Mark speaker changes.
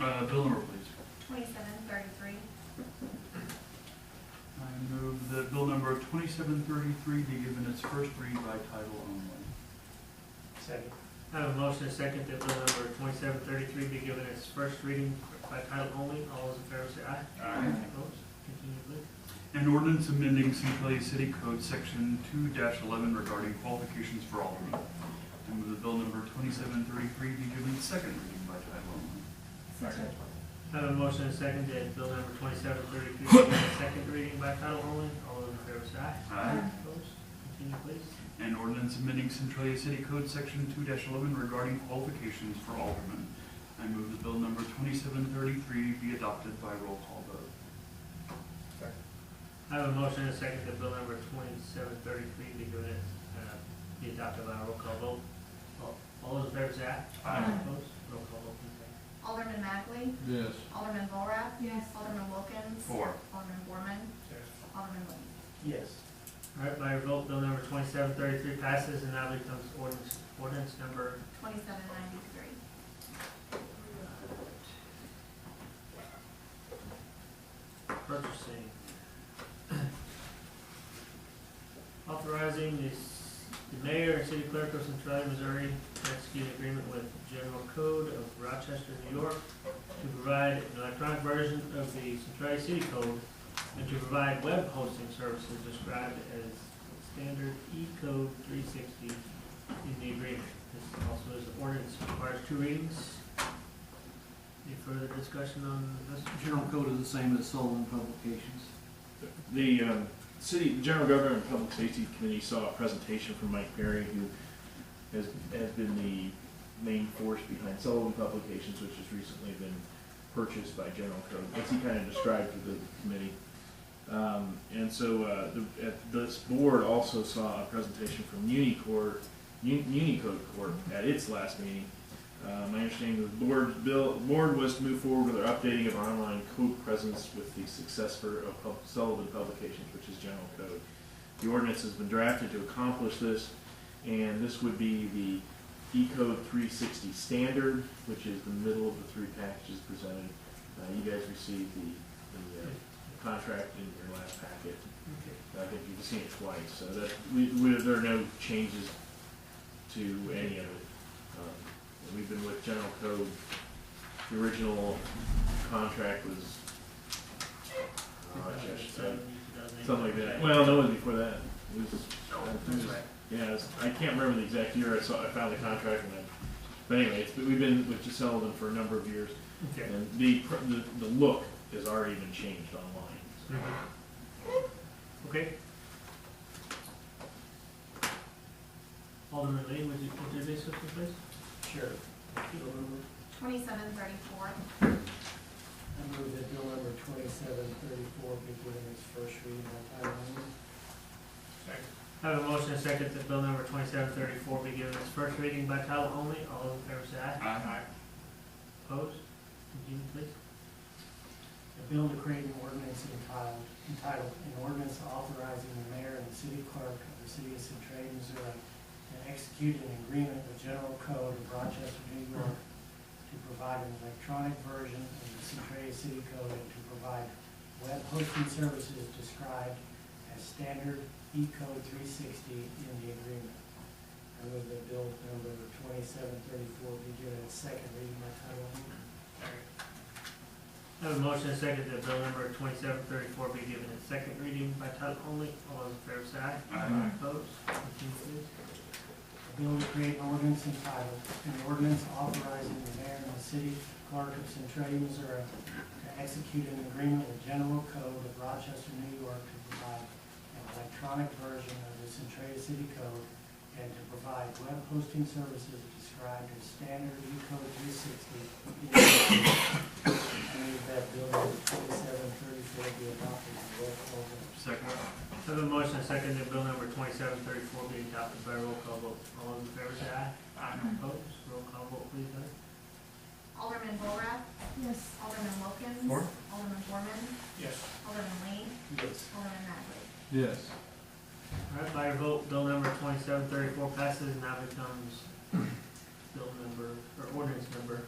Speaker 1: Uh, bill number, please.
Speaker 2: Twenty-seven thirty-three.
Speaker 1: I move that bill number twenty-seven thirty-three be given its first read by title only.
Speaker 3: Second. I have a motion and a second that bill number twenty-seven thirty-three be given its first reading by title only. All those in favor say aye.
Speaker 1: Aye.
Speaker 3: Opposed? Continue, please.
Speaker 1: An ordinance amending Centralia City Code Section two eleven regarding qualifications for aldermen. I move that bill number twenty-seven thirty-three be given its second reading by title only.
Speaker 2: Second.
Speaker 3: I have a motion and a second that bill number twenty-seven thirty-three be given its second reading by title only. All those in favor say aye.
Speaker 1: Aye.
Speaker 3: Opposed? Continue, please.
Speaker 1: An ordinance amending Centralia City Code Section two eleven regarding qualifications for aldermen. I move that bill number twenty-seven thirty-three be adopted by roll call vote.
Speaker 3: I have a motion and a second that bill number twenty-seven thirty-three be given its, uh, be adopted by a roll call vote. All- All those in favor say aye.
Speaker 1: Aye.
Speaker 3: Opposed? Roll call vote, please.
Speaker 2: Alderman Magley.
Speaker 4: Yes.
Speaker 2: Alderman Volrath.
Speaker 5: Yes.
Speaker 2: Alderman Wilkins.
Speaker 1: Four.
Speaker 2: Alderman Borman. Alderman Lee.
Speaker 3: Yes. All right, by your vote, bill number twenty-seven thirty-three passes and now becomes ordinance, ordinance number,
Speaker 2: Twenty-seven ninety-three.
Speaker 3: purchasing. Authorizing the s- the mayor and city clerk of Centralia, Missouri to execute an agreement with General Code of Rochester, New York to provide an electronic version of the Centralia City Code and to provide web hosting services described as standard E code three sixty in the agreement. This also is ordinance requires two readings. Any further discussion on this?
Speaker 6: General code is the same as Sullivan Publications.
Speaker 4: The um, city, the general government and public safety committee saw a presentation from Mike Perry, who has, has been the main force behind Sullivan Publications, which has recently been purchased by General Code, as he kind of described to the committee. Um, and so, uh, the, at this board also saw a presentation from Unicor, Un- Unicode Corp at its last meeting. Uh, my understanding of the board's bill, board was to move forward with our updating of our online code presence with the successor of Pub- Sullivan Publications, which is General Code. The ordinance has been drafted to accomplish this, and this would be the E-code three sixty standard, which is the middle of the three packages presented. Uh, you guys received the, the, uh, contract in your last packet.
Speaker 3: Okay.
Speaker 4: I think you've seen it twice, so that, we, we, there are no changes to any of it. Um, and We've been with General Code, the original contract was, uh, just, uh, something like that. Well, no, it was before that. It was, it was- yeah, it was- I can't remember the exact year I saw, I found the contract and then, but anyway, it's, we've been with Sullivan for a number of years.
Speaker 3: Okay.
Speaker 4: And the, pr- the, the look has already been changed online, so.
Speaker 3: Okay. Alderman Lee, would you introduce this, please?
Speaker 7: Sure.
Speaker 3: Thank you.
Speaker 2: Twenty-seven thirty-four.
Speaker 7: I move that bill number twenty-seven thirty-four be given its first reading by title only.
Speaker 3: I have a motion and a second that bill number twenty-seven thirty-four be given its first reading by title only. All those in favor say aye.
Speaker 1: Aye.
Speaker 3: Opposed? Continue, please.
Speaker 7: A bill to create an ordinance entitled, entitled, an ordinance authorizing the mayor and the city clerk of the city of Centralia, Missouri to execute an agreement with General Code of Rochester, New York to provide an electronic version of the Centralia City Code and to provide web hosting services described as standard E code three sixty in the agreement. I move that bill number twenty-seven thirty-four be given its second reading by title only.
Speaker 3: I have a motion and a second that bill number twenty-seven thirty-four be given its second reading by title only. All those in favor say aye.
Speaker 1: Aye.
Speaker 3: Opposed? Continue, please.
Speaker 7: A bill to create an ordinance entitled, an ordinance authorizing the mayor and the city clerk of Centralia, Missouri to execute an agreement with General Code of Rochester, New York to provide an electronic version of the Centralia City Code and to provide web hosting services described as standard E code three sixty. I move that bill number twenty-seven thirty-four be adopted by roll call vote.
Speaker 1: Second.
Speaker 3: I have a motion, and a second, that bill number twenty-seven thirty-four be adopted by roll call vote. All those in favor say aye. Aye. Opposed, roll call vote, please, Heather.
Speaker 2: Alderman Volrath.
Speaker 5: Yes.
Speaker 2: Alderman Wilkins.
Speaker 1: Four.
Speaker 2: Alderman Borman.
Speaker 3: Yes.
Speaker 2: Alderman Lee.
Speaker 7: Yes.
Speaker 2: Alderman Magley.
Speaker 4: Yes.
Speaker 3: All right, by your vote, bill number twenty-seven thirty-four passes and now becomes bill number, or ordinance number